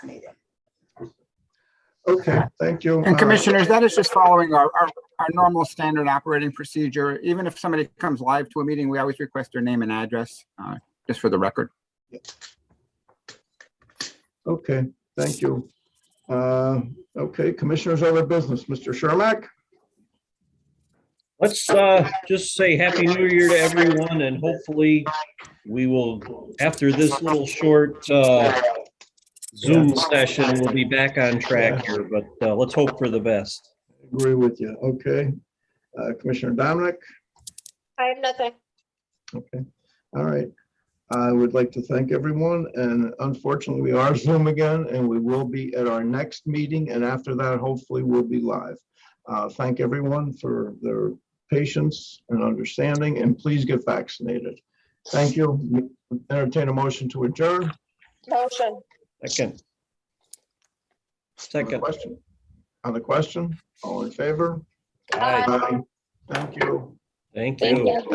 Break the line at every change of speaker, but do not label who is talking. meeting.
Okay, thank you.
And
Uh,
commissioners, that is just following our, our, our normal standard operating procedure. Even if somebody comes live to a meeting, we always request their name and address, uh, just for the record.
Okay, thank you. Uh, Okay, Commissioners, other business, Mr. Shermack?
Let's uh, just say Happy New Year to everyone and hopefully we will, after this little short uh, Zoom session, we'll be back on track here, but uh, let's hope for the best.
Agree with you, okay. Uh, Commissioner Dominic?
I have nothing.
Okay, all right. I would like to thank everyone, and unfortunately, we are Zoom again, and we will be at our next meeting, and after that, hopefully, we'll be live. Uh, Thank everyone for their patience and understanding, and please get vaccinated. Thank you. Entertain a motion to adjourn.
Motion.
Second.
On the
Second.
question. On the question, all in favor?
Aye.
Thank you.
Thank
Thank
you.
you.